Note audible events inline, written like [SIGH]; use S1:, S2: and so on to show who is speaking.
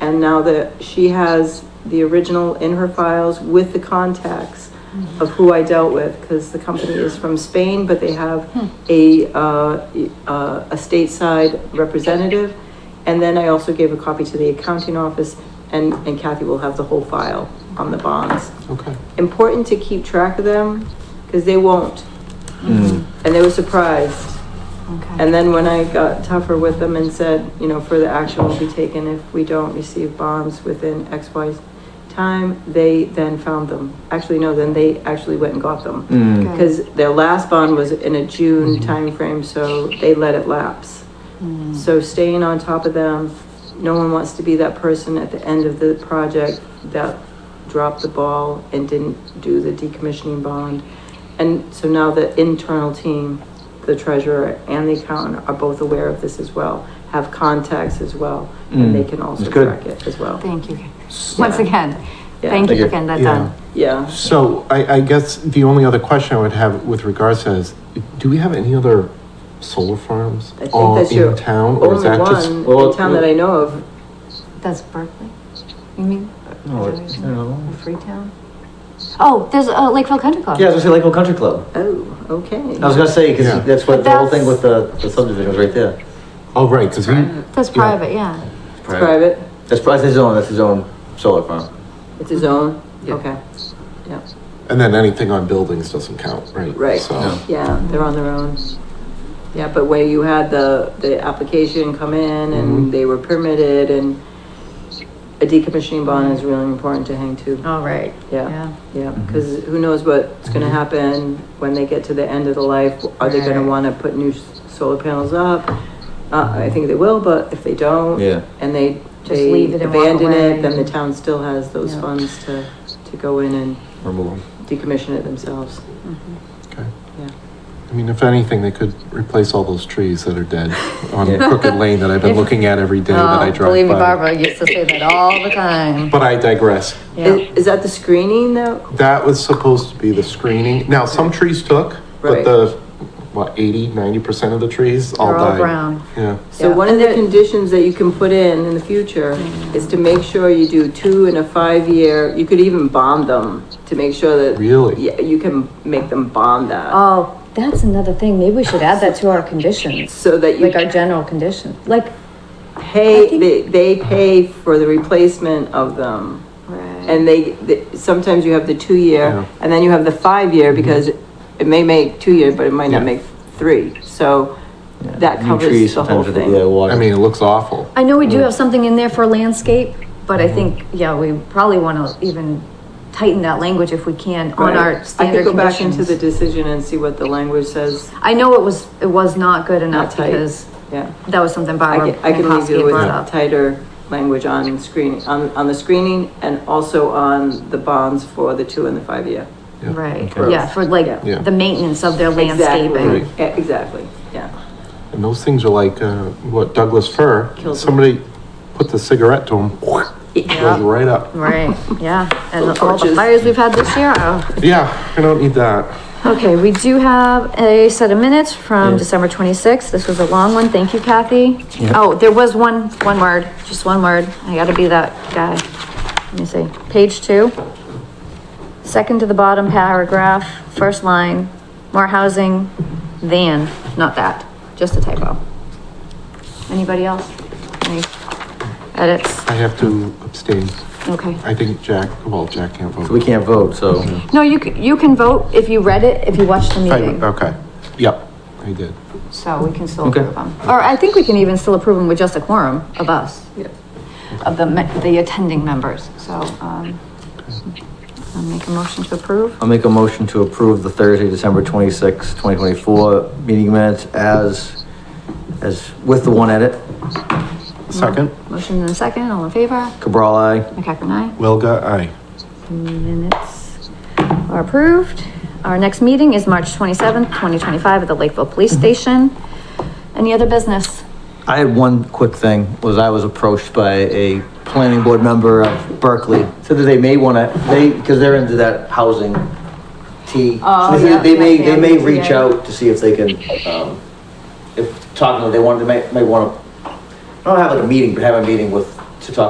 S1: And now that she has the original in her files with the contacts of who I dealt with, because the company is from Spain, but they have a, uh, e- uh, a stateside representative. And then I also gave a copy to the accounting office, and, and Kathy will have the whole file on the bonds.
S2: Okay.
S1: Important to keep track of them, because they won't, and they were surprised.
S3: Okay.
S1: Mm. And then when I got tougher with them and said, you know, further action will be taken if we don't receive bonds within X, Y time, they then found them. Actually, no, then they actually went and got them.
S2: Mm.
S3: Okay.
S1: Because their last bond was in a June timeframe, so they let it lapse.
S3: Mm.
S1: So staying on top of them, no one wants to be that person at the end of the project that dropped the ball and didn't do the decommissioning bond. And so now the internal team, the treasurer and the accountant are both aware of this as well, have contacts as well, and they
S2: Mm.
S1: can also
S2: That's good.
S1: track it as well.
S3: Thank you. [LAUGHS] Once again,
S1: Yeah.
S3: thank
S4: Thank
S3: you um,
S4: you.
S3: for getting that
S2: Yeah.
S3: done.
S1: Yeah,
S2: So I, I guess the only other question I would have with regards to that is, do we have any other solar farms
S1: I think
S2: all
S1: that's your
S2: in town? Or is
S1: only
S2: that just?
S1: one
S4: Well,
S1: in town that I know of.
S3: That's Berkeley, you mean?
S4: No,
S3: Is that what
S4: it's-
S3: you're saying?
S4: no.
S3: Or Freetown? Oh, there's, uh, Lakeville Country Club.
S4: Yeah, I was gonna say Lakeville Country Club.
S1: Oh, okay.
S4: I was gonna say,
S2: Yeah.
S4: because that's what,
S3: But
S4: the whole
S3: that's-
S4: thing with the the subdivision was right there.
S2: Oh, right, because we,
S3: That's private, yeah.
S4: It's
S1: It's private,
S4: That's, pri- that's his own, that's his own solar farm.
S1: it's
S2: Mm-hmm.
S1: his own, okay. Yeah,
S2: and then anything on buildings doesn't count, right?
S1: Right.
S2: So,
S4: No.
S1: yeah, they're on their own. Yeah, but where you had the, the application come in and
S2: Mhm.
S1: they were permitted and a decommissioning bond is really important to hang to.
S3: All Oh, right.
S1: Yeah, yeah, because who knows what's gonna happen when they get to the end of the life? Are they gonna
S3: Right.
S1: wanna put new s- solar panels up? Uh, I think they will, but if they don't,
S4: Yeah.
S1: and they,
S3: Just
S1: they
S3: leave it and walk
S1: abandon
S3: away.
S1: it, then the town still has those
S3: Yeah.
S1: funds to, to go in and
S4: Remove
S1: decommission it themselves,
S2: okay.
S1: yeah.
S2: I mean, if anything, they could replace all those trees that are dead on
S4: Yeah.
S2: Crooked Lane that I've been looking at every day that I
S3: Oh,
S2: drive
S3: Believe me,
S2: by.
S3: Barbara used to say that all the time.
S2: But I digress.
S3: Yeah.
S1: Is, is that the screening though?
S2: That was supposed to be the screening. Now, some trees took, but
S1: Right.
S2: the, what, 80, 90% of the trees all
S3: They're all
S2: died.
S3: brown.
S2: Yeah.
S1: So
S3: Yeah. Mm.
S1: one of the conditions that you can put in in the future is to make sure you do two and a five year, you could even bond them to make sure that.
S2: Really?
S1: Yeah, you can make them bond that,
S3: Oh, that's another thing. Maybe we should add that to our conditions,
S1: so that you
S3: like our general conditions, like. I
S1: pay,
S3: think-
S1: they, they pay for the replacement of them. And they, they- sometimes you have the two
S2: Yeah.
S1: year and then you have the five year
S4: Mm-hmm.
S1: because it may make two year, but it might not
S2: Yeah.
S1: make three, so
S4: it.
S1: that
S4: New
S1: covers
S4: trees
S1: the whole
S4: sometimes with the- Yeah,
S1: thing.
S4: water.
S2: I mean, it looks awful.
S3: I know we do have something in there for landscape, but
S1: Mm-hmm.
S3: I think, yeah, we probably wanna even tighten that language if we can on
S1: Right.
S3: our
S1: I could
S3: standard
S1: go back into the
S3: conditions.
S1: decision and see what the language says,
S3: I know it was, it was not good enough
S1: tight.
S3: because
S1: yeah.
S3: that was something
S1: I
S3: Barbara
S1: can, I can leave you
S3: Minkowski
S1: with
S3: brought up.
S1: tighter language on screening, on, on the screening and also on the bonds for the two and the five year.
S2: Yeah.
S3: Right,
S4: Okay.
S3: yeah, for like
S2: Yeah.
S3: the maintenance of their
S1: Exactly.
S3: landscaping.
S1: E- Exactly, yeah.
S2: And those things are like, uh, what, Douglas fir?
S1: Kills 'em.
S2: Somebody put the cigarette to them, goes right up.
S3: Right,
S1: [LAUGHS]
S3: yeah, and
S1: Little
S3: all the
S1: torches.
S3: fires we've had this year. oh.
S2: Yeah, I don't need that.
S3: Okay, we do have a set of minutes from
S4: Yeah.
S3: December twenty-sixth. This was a long one. Thank you, Kathy.
S4: Yeah.
S3: Oh, there was one, one word, just one word. I gotta be that guy. Let me see. Page two. Second to the bottom paragraph, first line, more housing than, not that, just a typo. Anybody else? Any edits?
S2: I have to abstain.
S3: Okay.
S2: I think Jack, well, Jack can't vote.
S4: So we can't vote, so.
S2: Mm-hmm.
S3: No, you, c- you can vote if you read it, if you watched the
S2: I-
S3: meeting.
S2: Okay, yep, I did.
S3: So we can still
S4: Okay.
S3: approve them. Or I think we can even still approve them with just a quorum of us,
S1: Yep.
S3: of the, me- the attending members. So, um, I'll make a motion to approve.
S4: I'll make a motion to approve the Thursday, December twenty-sixth, twenty twenty-four meeting minutes as, as, with the one edit.
S2: Second,
S3: Motion in a second, all in favor?
S4: Cabral, aye.
S3: McCacken, aye.
S2: Wilga, aye.
S3: Minutes are approved. Our next meeting is March twenty-seventh, twenty twenty-five at the Lakeville Police Station. Any other business?
S4: I had one quick thing, was I was approached by a planning board member of Berkeley, said that they may wanna, they, because they're into that housing T.
S3: Oh,
S4: So they said
S3: yeah,
S4: They may,
S3: yeah,
S4: they may
S3: yeah.
S4: reach out to see if they can, um, if, talking, to- they wanted, they may, may wanna, not have like a meeting, but have a meeting with